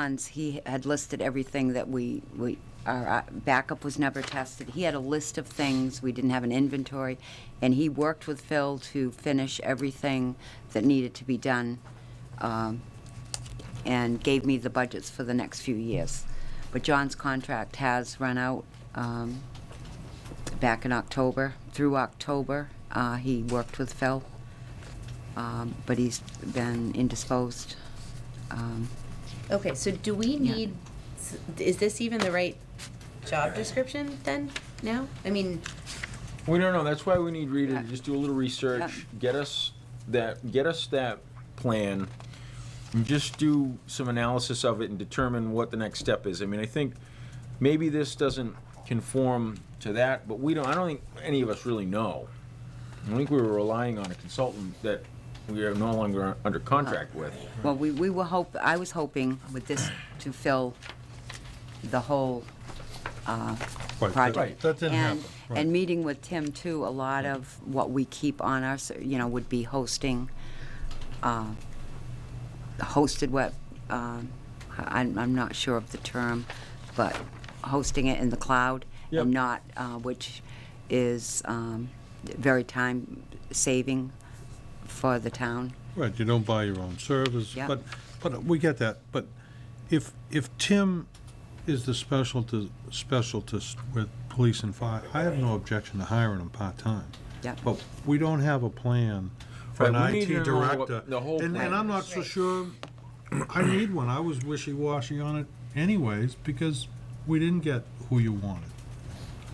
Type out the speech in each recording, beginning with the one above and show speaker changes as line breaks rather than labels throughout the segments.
Hans, he had listed everything that we, we, our uh, backup was never tested. He had a list of things, we didn't have an inventory, and he worked with Phil to finish everything that needed to be done, um, and gave me the budgets for the next few years. But John's contract has run out, um, back in October, through October. Uh, he worked with Phil, um, but he's been indisposed. Um,
Okay, so do we
Yeah.
need, s- is this even the right job description then, now? I mean,
We don't know, that's why we need Rita to
Yeah.
just do a little research, get us that, get us that plan, and just do some analysis of it and determine what the next step is. I mean, I think maybe this doesn't conform to that, but we don't, I don't think any of us really know. I think we were relying on a consultant that we are no longer under contract with.
Well, we, we were hope, I was hoping with this to fill the whole uh,
Right, that-
project.
that didn't
And-
happen, right.
And meeting with Tim too, a lot of what we keep on us, you know, would be hosting, uh, hosted what, um, I- I'm, I'm not sure of the term, but hosting it in the cloud
Yep.
and not, uh, which is um, very time-saving for the town.
Right, you don't buy your own servers,
Yeah.
but, but we get that, but if, if Tim is the specialty, specialist with police and fire, I have no objection to hiring him part-time.
Yeah.
But we don't have a plan for an
Right, we
IT
need to know what
director.
the whole
And,
plan
and I'm not
is.
so
Right.
sure, I need one, I was wishy-washy on it anyways, because we didn't get who you wanted.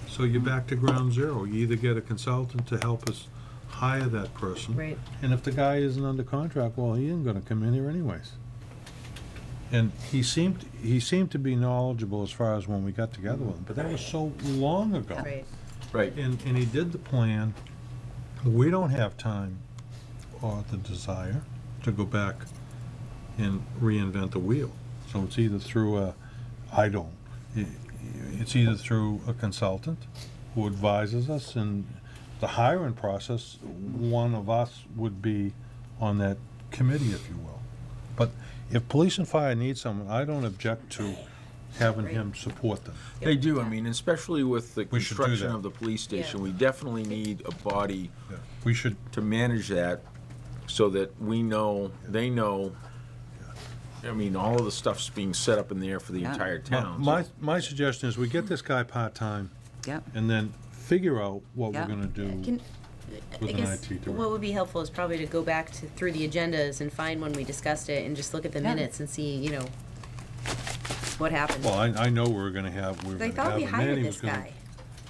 So you're back to ground zero, you either get a consultant to help us hire that person.
right,
And if the guy isn't under contract, well, he ain't gonna come in here anyways. And he seemed, he seemed to be knowledgeable as far as when we got together with him, but that was so long ago.
right.
Right.
And, and he did the plan. We don't have time or the desire to go back and reinvent the wheel. So it's either through a, I don't, i- it's either through a consultant who advises us and the hiring process, one of us would be on that committee, if you will. But if police and fire need someone, I don't object to having him support them.
They do, I mean, especially with the
We should do
construction
that.
of the police station, we definitely need a body
We should
to manage that so that we know, they know, I mean, all of the stuff's being set up in there for the
Yeah.
entire
My-
town.
My, my suggestion is we get this guy part-time
Yep.
and then figure out what
Yeah.
we're gonna do.
Can, I
With an
guess,
IT director.
what would be helpful is probably to go back to, through the agendas and find when we discussed it and just look at the
Yeah.
minutes and see, you know, what happened.
Well, I, I know we're gonna have, we're
I
gonna
thought
have
we
a man,
hired
he
this
was gonna.
guy.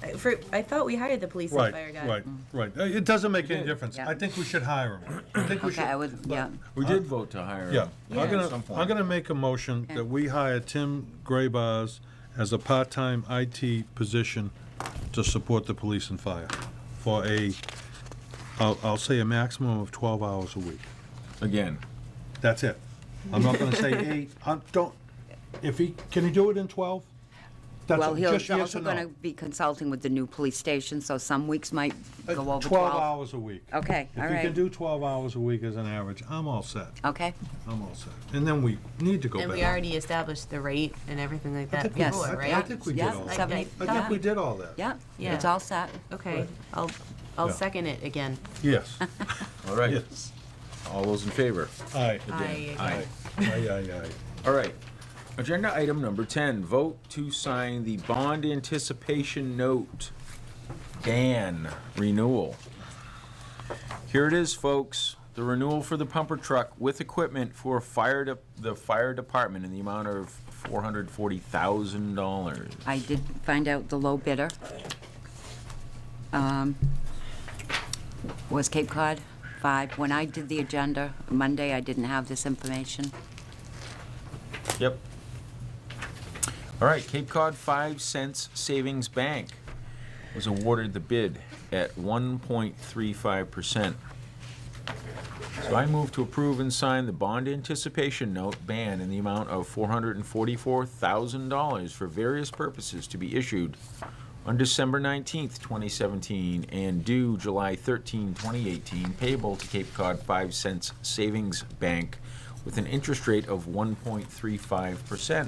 I- For, I thought we hired the police and fire
Right,
guy. Mm.
right, right. Uh, It doesn't make any
did.
difference.
Yeah.
I think we should hire him. I think we
Okay,
should.
I would, yeah.
We did vote to hire
Yeah,
him.
I'm
Yeah.
at
gonna,
some point.
I'm gonna make a motion that we hire Tim Graybars as a part-time IT position to support the police and fire for a, I'll, I'll say a maximum of twelve hours a week.
Again,
That's it. I'm not gonna say eight, I don't, if he, can he do it in twelve? That's
Well, he'll
just
he's
yes
also
or no.
going to be consulting with the new police station, so some weeks might
Uh,
go over 12.
hours a week.
Okay, all
If you can
right.
do twelve hours a week as an average, I'm all set,
Okay,
I'm all set. And then we need to go back.
And we already established the rate and everything like
I
that
think we- I-
before, right?
I think we did
Yeah,
all that.
seven-
I think we did all that.
yeah,
Yeah.
it's all set.
Okay, I'll, I'll
Yeah.
second it again.
Yes,
all right,
yes.
all those in favor?
Aye,
I,
Aye.
aye, aye, aye.
All right. Agenda item number 10, vote to sign the bond anticipation note, Dan renewal. Here it is, folks, the renewal for the pumper truck with equipment for fire, de- the fire department in the amount of $440,000.
I did find out the low bidder um, was Cape Cod 5. When I did the agenda Monday, I didn't have this information.
Yep. All right, Cape Cod Five Cents Savings Bank was awarded the bid at 1.35%. So I move to approve and sign the bond anticipation note ban in the amount of $444,000 for various purposes to be issued on December 19th, 2017, and due July 13, 2018, payable to Cape Cod 5 Cents Savings Bank with an interest rate of 1.35%.